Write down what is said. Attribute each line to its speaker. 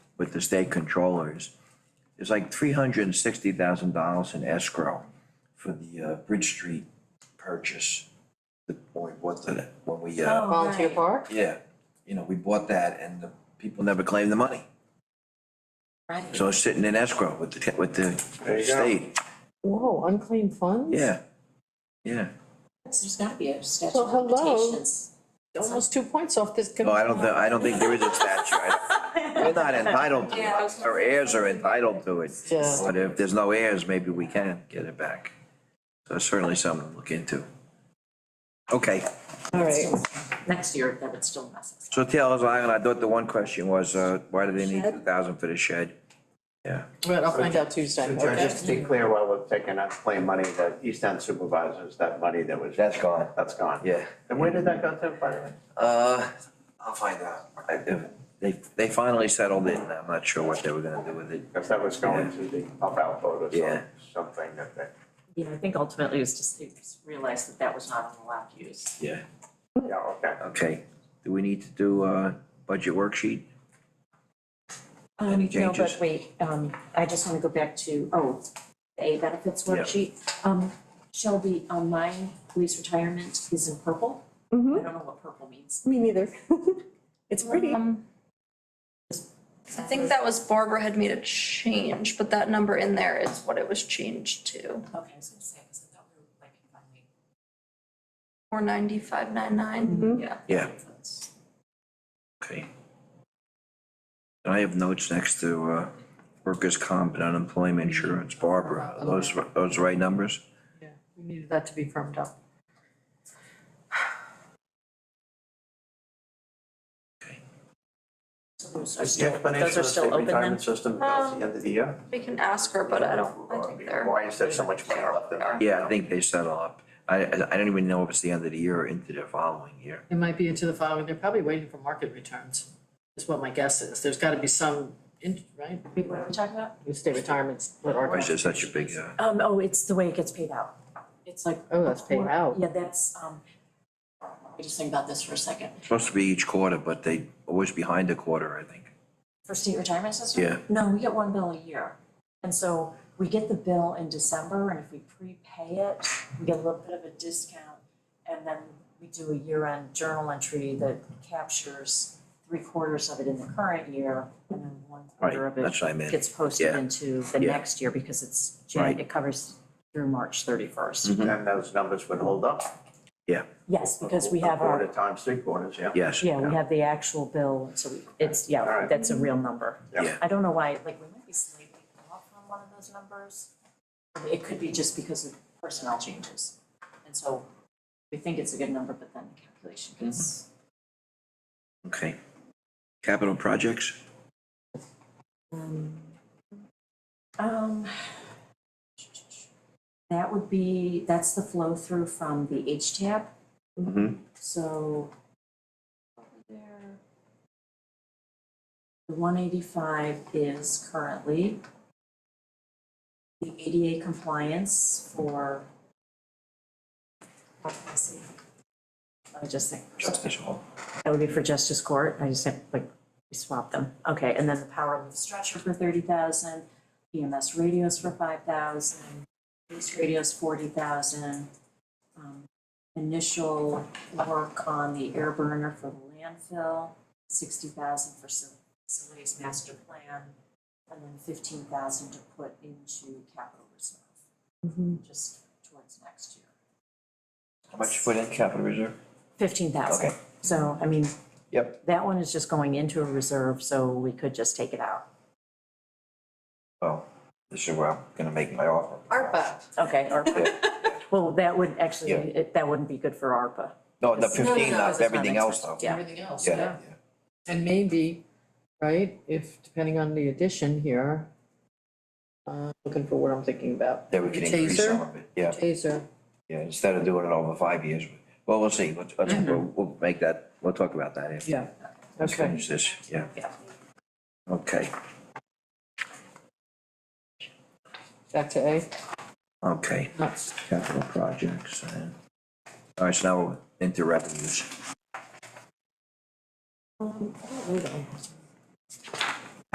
Speaker 1: with the state controllers. There's like three hundred and sixty thousand dollars in escrow for the uh, Bridge Street purchase. The, when we bought the, when we, uh,
Speaker 2: Volunteer park?
Speaker 1: yeah, you know, we bought that and the people never claimed the money.
Speaker 2: Right.
Speaker 1: So it's sitting in escrow with the, with the
Speaker 3: There you go.
Speaker 1: state,
Speaker 2: Whoa, unclaimed funds?
Speaker 1: yeah, yeah.
Speaker 4: There's gotta be a statute
Speaker 2: Well,
Speaker 4: of
Speaker 2: hello.
Speaker 4: limitations.
Speaker 2: Almost two points off this.
Speaker 1: No, Oh, I don't, thi- I don't think there is a statute. I- We're not entitled to it. Our heirs are entitled to it.
Speaker 2: Yeah.
Speaker 1: But if there's no heirs, maybe we can get it back. So it's certainly something to look into. Okay,
Speaker 2: All right,
Speaker 4: Next year, that would still mess us.
Speaker 1: so tell us, I I thought the one question was, uh, why do they need two thousand for the shed? Yeah,
Speaker 2: right, I'll find out Tuesday,
Speaker 3: So George,
Speaker 2: okay?
Speaker 3: just to be clear, while we're taking out claim money, the East End supervisors, that money that was.
Speaker 1: That's gone.
Speaker 3: That's gone.
Speaker 1: yeah.
Speaker 3: And where did that go to, by the way?
Speaker 1: Uh, I'll find out. I- They, they finally settled it, and I'm not sure what they were gonna do with it.
Speaker 3: Because that was going to the pump out vote or
Speaker 1: Yeah.
Speaker 3: some- something that they.
Speaker 4: Yeah, I think ultimately it was just, they just realized that that was not an allowed use.
Speaker 1: Yeah.
Speaker 3: Yeah, okay.
Speaker 1: Okay, do we need to do a budget worksheet? Any
Speaker 4: Um, No,
Speaker 1: changes?
Speaker 4: but wait, um, I just wanna go back to, oh, the A benefits
Speaker 1: Yeah.
Speaker 4: worksheet. Um, Shelby, um, my police retirement is in purple. I don't know what purple means.
Speaker 2: Me neither. It's Mm-hmm. pretty.
Speaker 5: Um, I think that was Barbara had made a change, but that number in there is what it was changed to,
Speaker 4: Okay, I was gonna say, cause I thought we were like combining.
Speaker 5: four ninety-five nine
Speaker 3: Mm-hmm.
Speaker 5: nine. Yeah.
Speaker 1: Yeah. Okay. And I have notes next to uh, workers' comp and unemployment insurance. Barbara, are those, those the right numbers?
Speaker 2: We needed that to be firmed up.
Speaker 4: Those are
Speaker 3: Is the
Speaker 4: still,
Speaker 3: explanation of
Speaker 4: those
Speaker 3: the
Speaker 4: are still
Speaker 3: state
Speaker 4: open then?
Speaker 3: retirement system about the end of the year?
Speaker 5: We can ask her, but I don't, I think they're.
Speaker 3: Why is there so much money left in there?
Speaker 1: Yeah, I think they settle up. I, I I don't even know if it's the end of the year or into the following year.
Speaker 2: It might be into the following, they're probably waiting for market returns, is what my guess is. There's gotta be some, in- right?
Speaker 4: Wait, what are we talking about?
Speaker 2: You stay retirements, what are.
Speaker 1: Why is there such a big, uh,
Speaker 4: Um, oh, it's the way it gets paid out. It's like.
Speaker 2: Oh, that's paid out.
Speaker 4: Yeah, that's, um, I just think about this for a second.
Speaker 1: it's supposed to be each quarter, but they always behind a quarter, I think.
Speaker 4: For state retirement system?
Speaker 1: Yeah.
Speaker 4: No, we get one bill a year. And so we get the bill in December and if we prepay it, we get a little bit of a discount. And then we do a year-end journal entry that captures three quarters of it in the current year and then one quarter
Speaker 1: Right,
Speaker 4: of it
Speaker 1: that's what I meant.
Speaker 4: gets posted
Speaker 1: Yeah.
Speaker 4: into the
Speaker 1: Yeah.
Speaker 4: next year because it's, Jan-
Speaker 1: Right. Mm.
Speaker 4: it covers through March thirty-first.
Speaker 1: Mm-hmm.
Speaker 3: And those numbers would hold up.
Speaker 4: Yes, because we have
Speaker 3: A
Speaker 4: our,
Speaker 3: quarter times, three quarters, yeah.
Speaker 1: Yes.
Speaker 4: yeah, we have the actual bill, so we- it's,
Speaker 3: All
Speaker 4: yeah,
Speaker 3: right.
Speaker 4: that's a real number.
Speaker 3: Yeah.
Speaker 1: Yeah.
Speaker 4: I don't know why, like, we might be slightly off on one of those numbers. It could be just because of personnel changes. And so we think it's a good number, but then the calculation gets.
Speaker 1: Okay. Capital projects?
Speaker 4: Um, that would be, that's the flow through from the H tab,
Speaker 1: Mm-hmm.
Speaker 4: so. over there. The one eighty-five is currently. The ADA compliance for. Let's see. Let me just think.
Speaker 1: Justice Hall.
Speaker 4: That would be for Justice Court, I just have, like, we swapped them. Okay, and then the power lift stretcher for thirty thousand, EMS radios for five thousand, police radios forty thousand. um, Initial work on the air burner for the landfill, sixty thousand for fac- facilities master plan, and then fifteen thousand to put into capital reserve,
Speaker 1: Mm-hmm.
Speaker 4: just towards next year.
Speaker 1: How much you put in capital reserve?
Speaker 4: Fifteen thousand,
Speaker 1: Okay.
Speaker 4: so, I mean,
Speaker 1: Yep.
Speaker 4: that one is just going into a reserve, so we could just take it out.
Speaker 1: Well, this is where I'm gonna make my offer.
Speaker 2: ARPA.
Speaker 4: Okay, ARPA. Well, that would actually,
Speaker 1: Yeah.
Speaker 4: it- that wouldn't be good for ARPA.
Speaker 1: No, the
Speaker 2: no,
Speaker 1: fifteen,
Speaker 2: no,
Speaker 1: not
Speaker 4: it's not
Speaker 1: everything else though.
Speaker 4: expensive, yeah.
Speaker 2: Everything else,
Speaker 1: Yeah,
Speaker 2: And maybe, right, if, depending on the addition here, uh, looking for what I'm thinking about.
Speaker 1: that we can increase some of it, yeah,
Speaker 2: Taser,
Speaker 1: yeah, instead of doing it over five years. Well, we'll see, let's, let's, we'll, we'll make that, we'll talk about that after.
Speaker 2: Mm-hmm. yeah,
Speaker 1: Let's
Speaker 2: okay.
Speaker 1: finish this, yeah.
Speaker 4: Yeah.
Speaker 1: Okay,
Speaker 2: Back to A,
Speaker 1: okay,
Speaker 2: No.
Speaker 1: capital projects and, all right, so now we're into revenues.
Speaker 2: Um, I don't know though.